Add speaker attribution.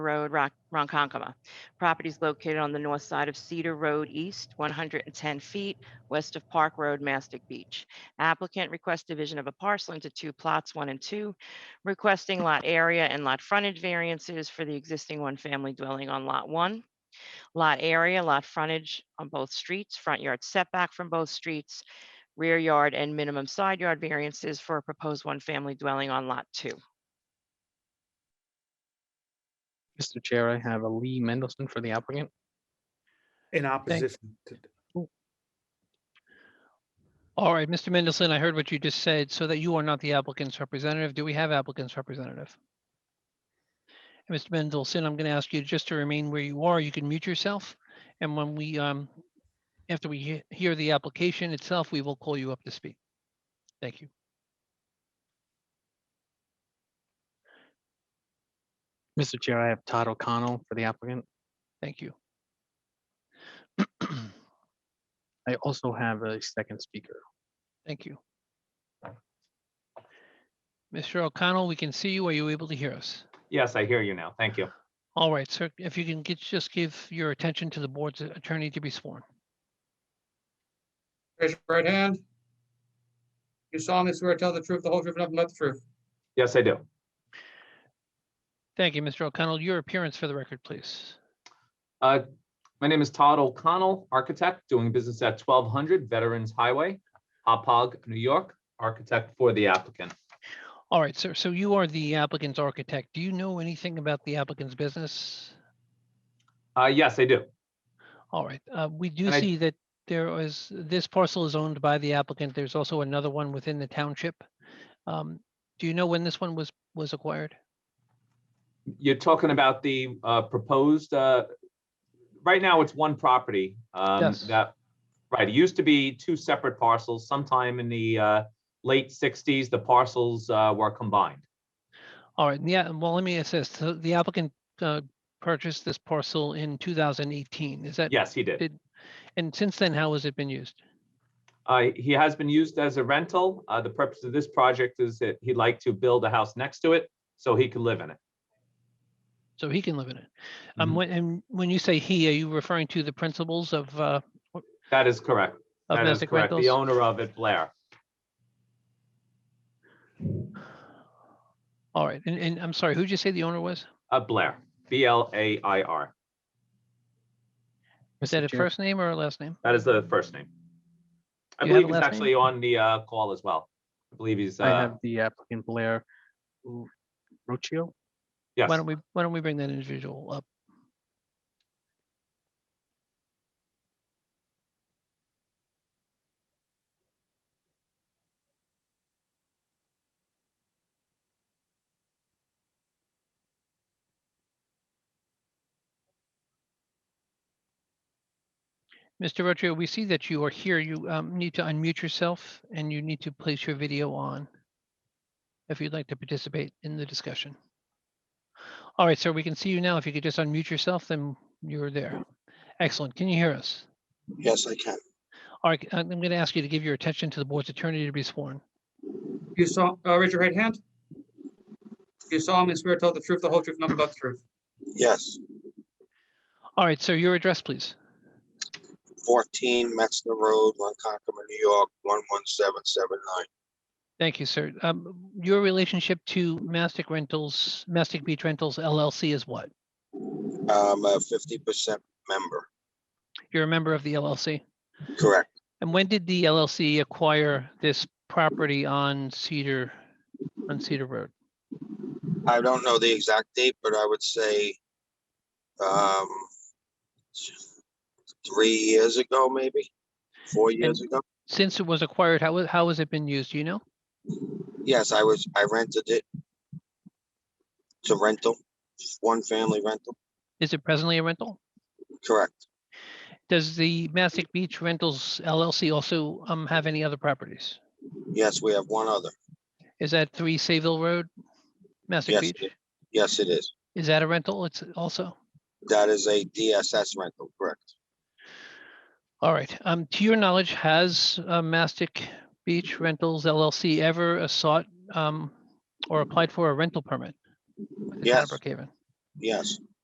Speaker 1: Road, Ron- Ronkonkoma. Property is located on the north side of Cedar Road East, 110 feet west of Park Road, Mastic Beach. Applicant requests division of a parcel into two plots, one and two, requesting lot area and lot frontage variances for the existing one-family dwelling on Lot 1. Lot area, lot frontage on both streets, front yard setback from both streets, rear yard and minimum side yard variances for a proposed one-family dwelling on Lot 2.
Speaker 2: Mr. Chair, I have a Lee Mendelson for the applicant.
Speaker 3: In opposition to,
Speaker 4: All right, Mr. Mendelson, I heard what you just said, so that you are not the applicant's representative. Do we have applicant's representative? And Mr. Mendelson, I'm going to ask you just to remain where you are. You can mute yourself. And when we, um, after we he- hear the application itself, we will call you up to speak. Thank you.
Speaker 2: Mr. Chair, I have Todd O'Connell for the applicant.
Speaker 4: Thank you.
Speaker 2: I also have a second speaker.
Speaker 4: Thank you. Mr. O'Connell, we can see you. Are you able to hear us?
Speaker 5: Yes, I hear you now. Thank you.
Speaker 4: All right, sir, if you can get, just give your attention to the board's attorney to be sworn.
Speaker 6: Raise your right hand. You solemnly swear to tell the truth, the whole truth, and nothing but the truth.
Speaker 5: Yes, I do.
Speaker 4: Thank you, Mr. O'Connell. Your appearance for the record, please.
Speaker 5: Uh, My name is Todd O'Connell, architect, doing business at 1200 Veterans Highway, Hopog, New York, architect for the applicant.
Speaker 4: All right, sir. So you are the applicant's architect. Do you know anything about the applicant's business?
Speaker 5: Uh, Yes, I do.
Speaker 4: All right, uh, we do
Speaker 5: And I-
Speaker 4: see that there is, this parcel is owned by the applicant. There's also another one within the township. Um, Do you know when this one was, was acquired?
Speaker 5: You're talking about the uh, proposed, uh, right now, it's one property. um,
Speaker 4: Yes.
Speaker 5: That, right, it used to be two separate parcels. Sometime in the uh, late 60s, the parcels uh, were combined.
Speaker 4: All right, yeah, well, let me assist. So the applicant uh, purchased this parcel in 2018, is that?
Speaker 5: Yes, he did.
Speaker 4: Did, and since then, how has it been used?
Speaker 5: Uh, he has been used as a rental. Uh, the purpose of this project is that he'd like to build a house next to it so he could live in it.
Speaker 4: So he can live in it.
Speaker 5: Mm-hmm.
Speaker 4: Um, when, and when you say he, are you referring to the principals of, uh,
Speaker 5: That is correct.
Speaker 4: of
Speaker 5: That is
Speaker 4: Mastic
Speaker 5: correct.
Speaker 4: Rentals?
Speaker 5: The owner of it, Blair.
Speaker 4: All right, and, and I'm sorry, who'd you say the owner was?
Speaker 5: Uh, Blair, B L A I R.
Speaker 4: Is that
Speaker 2: Mr.
Speaker 4: a
Speaker 2: Chair,
Speaker 4: first name or a last name?
Speaker 5: That is the first name. I
Speaker 4: Do you have
Speaker 5: believe
Speaker 4: a
Speaker 5: he's
Speaker 4: last
Speaker 5: actually on the uh, call as well. I believe he's,
Speaker 2: I
Speaker 5: uh,
Speaker 2: have the applicant Blair Ru- Ruccio.
Speaker 5: yes.
Speaker 4: Why don't we, why don't we bring that individual up? Mr. Rocio, we see that you are here. You um, need to unmute yourself and you need to place your video on if you'd like to participate in the discussion. All right, sir, we can see you now. If you could just unmute yourself, then you're there. Excellent. Can you hear us?
Speaker 7: Yes, I can.
Speaker 4: All right, I'm going to ask you to give your attention to the board's attorney to be sworn.
Speaker 6: You saw, uh, raise your right hand. You solemnly swear to tell the truth, the whole truth, and nothing but the truth.
Speaker 7: Yes,
Speaker 4: All right, sir, your address, please.
Speaker 7: fourteen Metzner Road, Lancaster, New York, one one seven seven nine.
Speaker 4: Thank you, sir. Um, Your relationship to Mastic Rentals, Mastic Beach Rentals LLC is what?
Speaker 7: I'm a fifty percent member,
Speaker 4: You're a member of the LLC?
Speaker 7: correct,
Speaker 4: And when did the LLC acquire this property on Cedar, on Cedar Road?
Speaker 7: I don't know the exact date, but I would say um three years ago, maybe, four years ago.
Speaker 4: Since it was acquired, how, wa- how has it been used? Do you know?
Speaker 7: Yes, I was, I rented it to rental, one family rental,
Speaker 4: Is it presently a rental?
Speaker 7: correct.
Speaker 4: Does the Mastic Beach Rentals LLC also um, have any other properties?
Speaker 7: Yes, we have one other.
Speaker 4: Is that three Sayville Road, Mastic
Speaker 7: Yes, it
Speaker 4: Beach?
Speaker 7: is. Yes, it is.
Speaker 4: Is that a rental? It's also,
Speaker 7: That is a DSS rental, correct?
Speaker 4: all right. Um, to your knowledge, has uh, Mastic Beach Rentals LLC ever uh, sought um, or applied for a rental permit? with the town of
Speaker 7: Yes.
Speaker 4: Brookhaven?
Speaker 7: Yes,